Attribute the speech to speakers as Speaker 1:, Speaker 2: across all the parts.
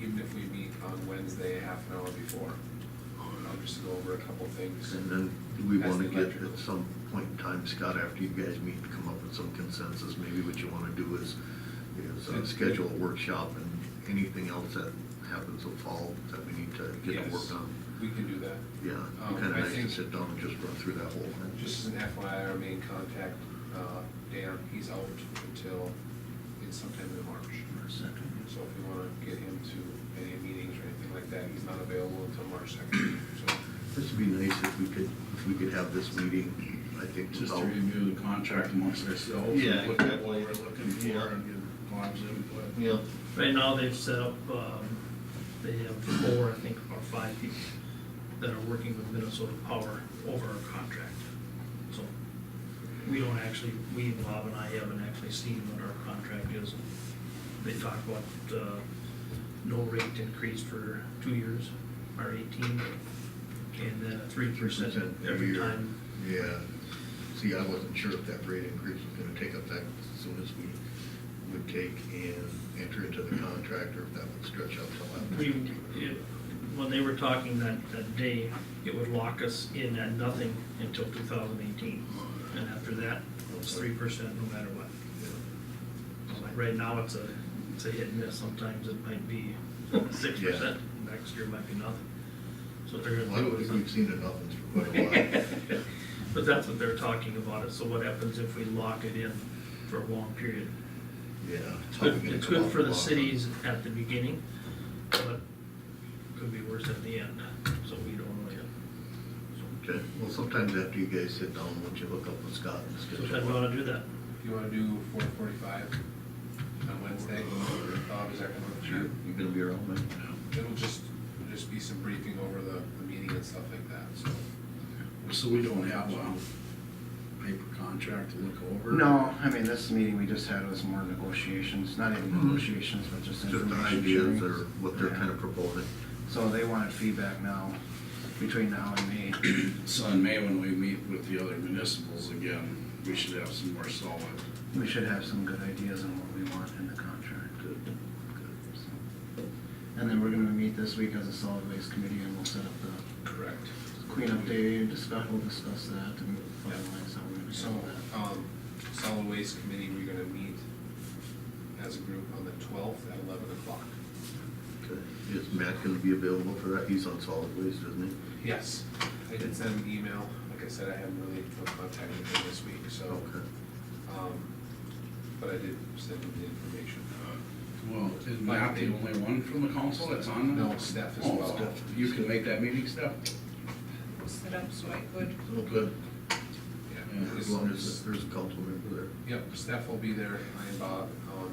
Speaker 1: even if we meet on Wednesday, half an hour before. I'll just go over a couple things.
Speaker 2: And then do we
Speaker 1: That's the
Speaker 2: wanna get
Speaker 1: electrical.
Speaker 2: at some point in time, Scott, after you guys meet, come up with some consensus? Maybe what you wanna do is, is uh, schedule a workshop and anything else that happens will fall that we need to get to
Speaker 1: Yes,
Speaker 2: work on.
Speaker 1: We can do that.
Speaker 2: Yeah,
Speaker 1: Um,
Speaker 2: it'd be kinda
Speaker 1: I
Speaker 2: nice to
Speaker 1: think-
Speaker 2: sit down and just run through that whole thing.
Speaker 1: Just as an FYI, our main contact, uh, Dan, he's out until, it's sometime in March. So if we wanna get him to any meetings or anything like that, he's not available until March second, so.
Speaker 2: This would be nice if we could, if we could have this meeting, I think,
Speaker 3: Just to
Speaker 2: without-
Speaker 3: review the contract amongst ourselves.
Speaker 2: Yeah,
Speaker 3: and Look at
Speaker 2: exactly.
Speaker 3: what we're looking for and get Bob's input.
Speaker 2: Yeah,
Speaker 4: Right now, they've set up, um, they have four, I think, or five people that are working with Minnesota Power over our contract. So we don't actually, we, Bob and I haven't actually seen what our contract is. They talk about, uh, no rate increase for two years, or eighteen, and then a three percent every
Speaker 2: year.
Speaker 4: time.
Speaker 2: Yeah, see, I wasn't sure if that rate increase was gonna take effect as soon as we would take and enter into the contract, or if that would stretch out till after.
Speaker 4: We, it, when they were talking that, that day, it would lock us in at nothing until two thousand eighteen. And after that, it's three percent no matter what. Right now, it's a, it's a hit and miss, sometimes it might be six percent, next year might be nothing. So they're
Speaker 2: Well, I
Speaker 4: gonna
Speaker 2: don't
Speaker 4: do
Speaker 2: think
Speaker 4: is
Speaker 2: we've seen enough for quite a while.
Speaker 4: But that's what they're talking about, so what happens if we lock it in for a long period?
Speaker 2: Yeah.
Speaker 4: It's
Speaker 2: how we
Speaker 4: good,
Speaker 2: gonna
Speaker 4: it's
Speaker 2: come
Speaker 4: good
Speaker 2: out
Speaker 4: for the
Speaker 2: long
Speaker 4: cities at the beginning, but could be worse at the end, so we don't really.
Speaker 2: run. Okay, well, sometimes after you guys sit down, won't you look up with Scott and
Speaker 4: So if I
Speaker 2: schedule?
Speaker 4: wanna
Speaker 2: one?
Speaker 4: do that,
Speaker 1: You wanna do four forty-five on Wednesday? Bob, is that gonna work for you?
Speaker 2: You gonna be around, man?
Speaker 1: It'll just, it'll just be some briefing over the, the meeting and stuff like that, so.
Speaker 3: So we don't have a paper contract to look over?
Speaker 5: No, I mean, this meeting we just had was more negotiations, not even
Speaker 2: Mhm.
Speaker 5: negotiations, but just
Speaker 2: Just the
Speaker 5: information
Speaker 2: ideas
Speaker 5: sharing.
Speaker 2: or what they're
Speaker 5: Yeah.
Speaker 2: kind of proposing.
Speaker 5: So they wanted feedback now, between now and May.
Speaker 3: So in May, when we meet with the other municipals again, we should have some more solid.
Speaker 5: We should have some good ideas on what we want in the contract. So. And then we're gonna meet this week as a solid waste committee and we'll set up the
Speaker 3: Correct.
Speaker 5: cleanup day and discuss, we'll discuss that and finalize how we're gonna
Speaker 1: So,
Speaker 5: handle that.
Speaker 1: um, solid waste committee, we're gonna meet as a group on the twelfth at eleven o'clock.
Speaker 2: Okay. Is Matt gonna be available for that? He's on solid waste, isn't he?
Speaker 1: Yes, I did send an email, like I said, I haven't really contacted him this week, so,
Speaker 2: Okay.
Speaker 1: um, but I did send him the information.
Speaker 3: Well, is Matt the only one from the council that's on? there?
Speaker 1: No, Steph as
Speaker 3: Oh,
Speaker 1: well.
Speaker 3: Steph. You can make that meeting, Steph?
Speaker 6: set up so I could
Speaker 2: Oh, good.
Speaker 1: Yeah,
Speaker 3: Yeah,
Speaker 2: As
Speaker 1: this-
Speaker 2: long
Speaker 1: this-
Speaker 2: as there's a council member there.
Speaker 1: Yep, Steph will be there, I and Bob, um,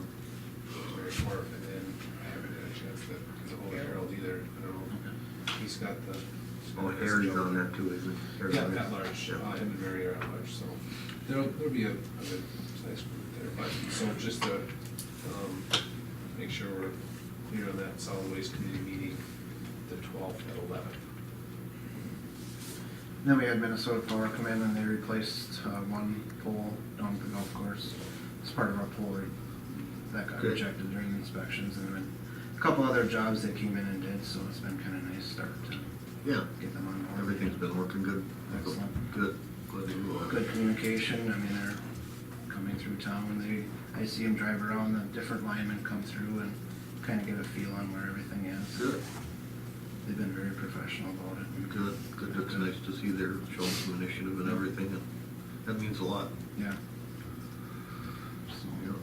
Speaker 1: Mary Corf, and then I haven't had a chance to, because of old Harold either, I don't know. He's got the.
Speaker 2: Oh, Harry's on that too, isn't he? Harry's
Speaker 1: Yeah,
Speaker 2: on
Speaker 1: at
Speaker 2: it.
Speaker 1: large,
Speaker 2: Yeah.
Speaker 1: uh, him and Mary are at large, so there'll, there'll be a, a good size group there, but, so just to, um, make sure we're clear on that solid waste committee meeting, the twelfth at eleven.
Speaker 5: Then we had Minnesota Power come in and they replaced uh, one pole down at the golf course. It's part of our pole re- that got
Speaker 2: Good.
Speaker 5: rejected during inspections and then a couple other jobs they came in and did, so it's been kind of nice start to
Speaker 2: Yeah,
Speaker 5: get them on board.
Speaker 2: everything's been working good.
Speaker 5: Excellent.
Speaker 2: Good, glad to hear that.
Speaker 5: Good communication, I mean, they're coming through town, they, I see them drive around, the different linemen come through and kind of get a feel on where everything is.
Speaker 2: Good,
Speaker 5: They've been very professional about it.
Speaker 2: good, good, it's nice to see they're showing some initiative and everything, and that means a lot,
Speaker 5: Yeah.
Speaker 2: you
Speaker 5: So,
Speaker 2: know.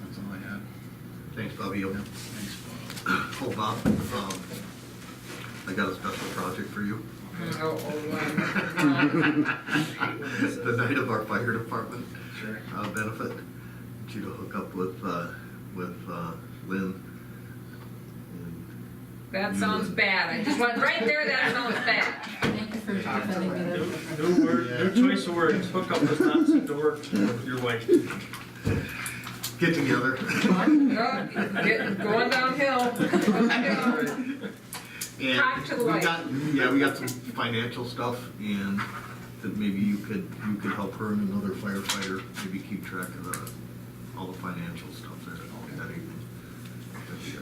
Speaker 5: that's all I had.
Speaker 2: Thanks, Bobby. Yep.
Speaker 3: Thanks, Bob.
Speaker 2: Oh, Bob, um, I got a special project for you.
Speaker 6: Oh,
Speaker 2: The night of our fire department.
Speaker 5: Sure.
Speaker 2: uh, benefit. Get you to hook up with, uh, with, uh, Lynn. and
Speaker 6: That
Speaker 2: you
Speaker 6: sounds
Speaker 2: and-
Speaker 6: bad. I just went right there. That sounds bad.
Speaker 7: Thank you for defending me there.
Speaker 4: new word, new choice of words, hook up does not seem to work with your wife.
Speaker 2: Get together.
Speaker 6: Oh, get- Going downhill. Downhill.
Speaker 2: And
Speaker 6: Rock to the
Speaker 2: we
Speaker 6: light.
Speaker 2: got, yeah, we got some financial stuff and that maybe you could, you could help her and another firefighter, maybe keep track of the, all the financial stuff.